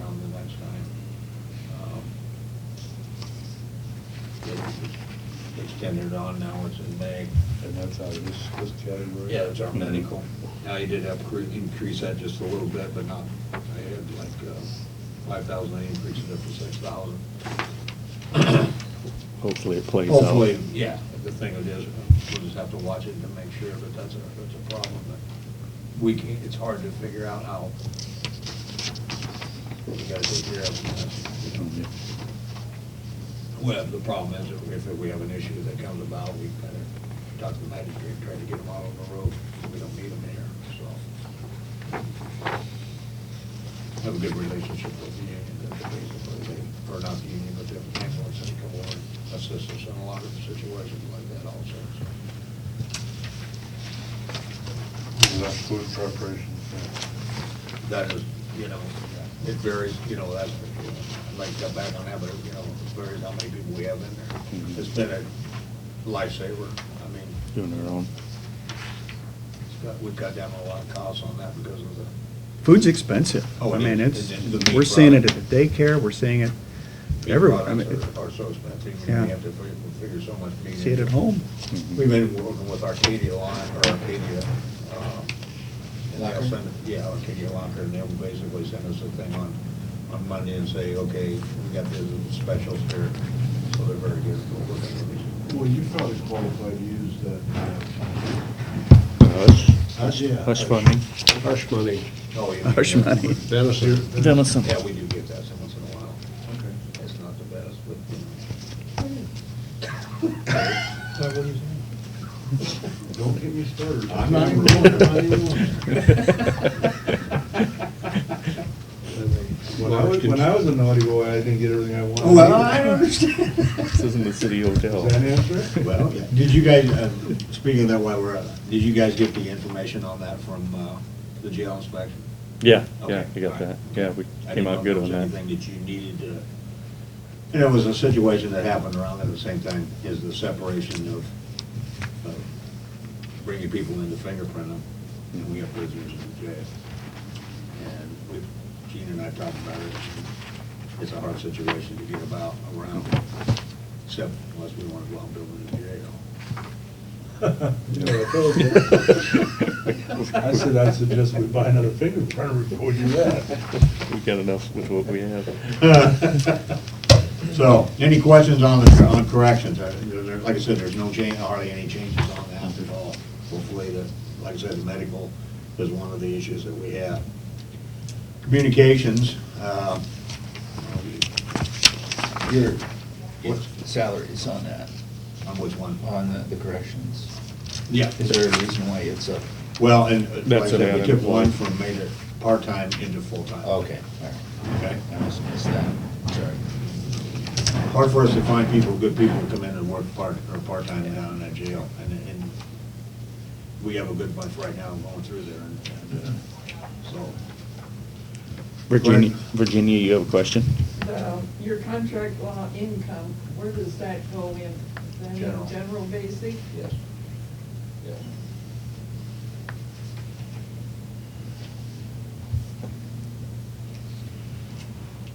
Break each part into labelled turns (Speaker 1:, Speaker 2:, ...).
Speaker 1: Um, tendered on, now it's in May.
Speaker 2: And that's Mm-hmm. out of this, this category?
Speaker 1: Yeah, it's our medical. Now, you did have cre- increase that just a little bit, but not, I had like uh, five thousand, I increased it up to six thousand.
Speaker 3: Hopefully it plays out.
Speaker 1: Hopefully, yeah, the thing it is, we'll just have to watch it to make sure, but that's a, that's a problem that we can, it's hard to figure out how. We gotta take care of it. you know. Well, the problem is if if we have an issue that comes about, we better talk to the magistrate, try to get them out on the road. We don't need them here, so. Have a good relationship with the union, that's basically, they- or not the union, but the ambulance and come over and assist us in a lot of situations like that also.
Speaker 2: Is that food preparation?
Speaker 1: so. That is, you know, it varies, you know, that's, you know, I'd like to go back on that, but, you know, it varies how many people we have in there.
Speaker 4: Mm-hmm.
Speaker 3: Mhm.
Speaker 1: It's been a lifesaver, I mean,
Speaker 3: Doing their own.
Speaker 1: It's got- We've got down a lot of costs on that because of the,
Speaker 4: Food's expensive.
Speaker 1: Oh,
Speaker 4: I
Speaker 1: it
Speaker 4: mean,
Speaker 1: is.
Speaker 4: it's,
Speaker 1: The meat
Speaker 4: we're seeing it at
Speaker 1: product.
Speaker 4: the daycare, we're seeing it
Speaker 1: meat
Speaker 4: everywhere. I mean,
Speaker 1: products are are so expensive,
Speaker 4: Yeah.
Speaker 1: and we have to figure- figure so much meat.
Speaker 4: see it
Speaker 1: into
Speaker 4: at home.
Speaker 1: We've been working with Arcadia Line, or Arcadia, um, and they'll send, yeah, Arcadia Locker, and they'll basically send us a thing on, on Monday and say, okay, we got these specials here, so they're very good. We'll look into these.
Speaker 2: Well, you probably qualified to use that.
Speaker 3: Hush, hush funding.
Speaker 5: Hush money.
Speaker 1: Oh, yeah.
Speaker 4: Hush money.
Speaker 5: Dennis, you
Speaker 3: Dennison.
Speaker 1: Yeah, we do get that so once in a while.
Speaker 2: Okay.
Speaker 1: It's not the best, but, you
Speaker 2: Don't get me started.
Speaker 5: I'm not even going, I'm not even going.
Speaker 2: When I was, when I was a naughty boy, I didn't get everything I wanted.
Speaker 1: understand.
Speaker 3: This isn't the city hotel.
Speaker 2: Does that answer it?
Speaker 1: Well, yeah. did you guys, uh, speaking of that while we're, at it, did you guys get the information on that from uh, the jail inspection?
Speaker 3: Yeah, yeah,
Speaker 1: Okay,
Speaker 3: you got
Speaker 1: all
Speaker 3: that.
Speaker 1: right.
Speaker 3: Yeah, we
Speaker 1: I didn't
Speaker 3: came
Speaker 1: know
Speaker 3: out
Speaker 1: if
Speaker 3: good
Speaker 1: there
Speaker 3: on
Speaker 1: was
Speaker 3: that.
Speaker 1: Anything that you needed to, and it was a situation that happened around at the same time, is the separation of, of bringing people in to fingerprint them, and we have prisoners in the jail. And we, Gene and I talked about it, it's a hard situation to get about around, except unless we want to go out and build a new jail.
Speaker 2: You know, I told you. I said, I suggest we buy another fingerprinter before you do that.
Speaker 3: We got enough with what we have.
Speaker 1: So, any questions on the, on corrections? Uh, there- there- Like I said, there's no change, hardly any changes on that at all. Hopefully, the, like I said, the medical is one of the issues that we have. Communications, uh,
Speaker 6: Your, what salaries on that,
Speaker 1: on which one?
Speaker 6: on the the corrections?
Speaker 1: Yeah.
Speaker 6: Is there a reason why it's up?
Speaker 1: Well, and uh, like I
Speaker 3: That's
Speaker 1: said, we
Speaker 3: an
Speaker 1: took one
Speaker 3: unemployed.
Speaker 1: from made it part-time into full-time.
Speaker 6: Okay, all right.
Speaker 1: Okay.
Speaker 6: I must have missed that, sorry.
Speaker 1: hard for us to find people, good people to come in and work part, or part-time down in that jail. And, and we have a good bunch right now going through there and, and, uh, so.
Speaker 3: Virginia, Virginia, you have a question?
Speaker 7: the- Um, your contract law income, where does that go in? Is that in
Speaker 1: General.
Speaker 7: General basic?
Speaker 1: Yes. Yeah.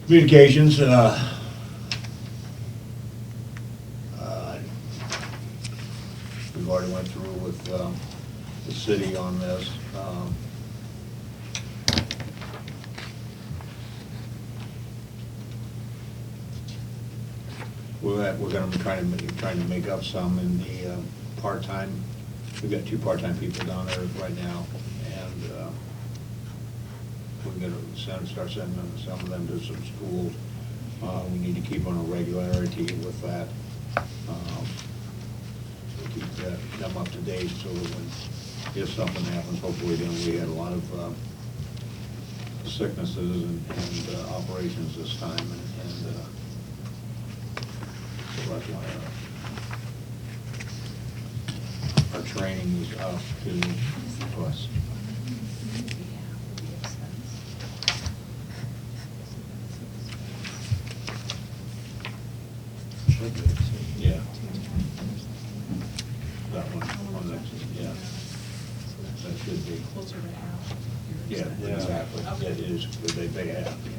Speaker 1: Communications, uh, uh, we've already went through with, um, the city on this. um, We're, at- we're gonna be trying to, make- trying to make up some in the uh, part-time, we've got two part-time people down there right now, and uh, we're gonna send, start sending them- some of them to some schools. Uh, We need to keep on a regularity with that. um, to Keep that- them up to date, so that when, if something happens, hopefully, then we had a lot of uh, sicknesses and and, uh, operations this time, and and, uh, so that's why our- our training is up to plus. Yeah. That one, on that, yeah, that should be.
Speaker 8: Closer to half.
Speaker 1: Yeah, exactly, that is, but they, they have, yeah.